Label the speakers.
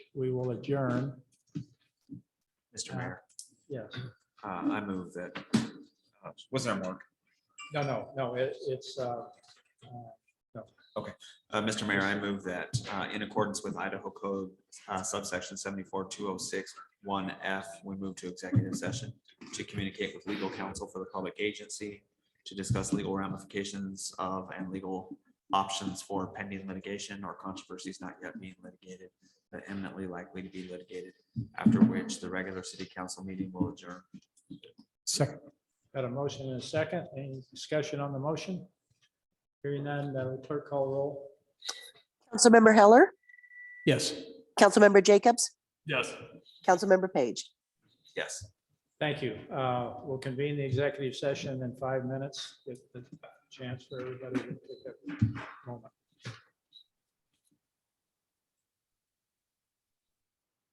Speaker 1: we will adjourn.
Speaker 2: Mr. Mayor,
Speaker 1: Yes.
Speaker 2: uh, I move that, uh, wasn't our mark?
Speaker 1: No, no, no, it- it's, uh, uh,
Speaker 2: Uh, Mr. Mayor, I move that uh, in accordance with Idaho Code uh, subsection seventy-four, two oh six, one F, we move to executive session to communicate with legal counsel for the public agency to discuss legal ramifications of and legal options for pending litigation or controversies not yet being litigated, but eminently likely to be litigated, after which the regular city council meeting will adjourn.
Speaker 1: Second. Got a motion and a second. Any discussion on the motion? Hearing none, uh, clerk call roll.
Speaker 3: Councilmember Heller,
Speaker 1: Yes.
Speaker 3: Councilmember Jacobs,
Speaker 1: Yes.
Speaker 3: Councilmember Page.
Speaker 2: Yes.
Speaker 1: Thank you. Uh, We'll convene the executive session in five minutes. Get the chance for everybody to take a moment.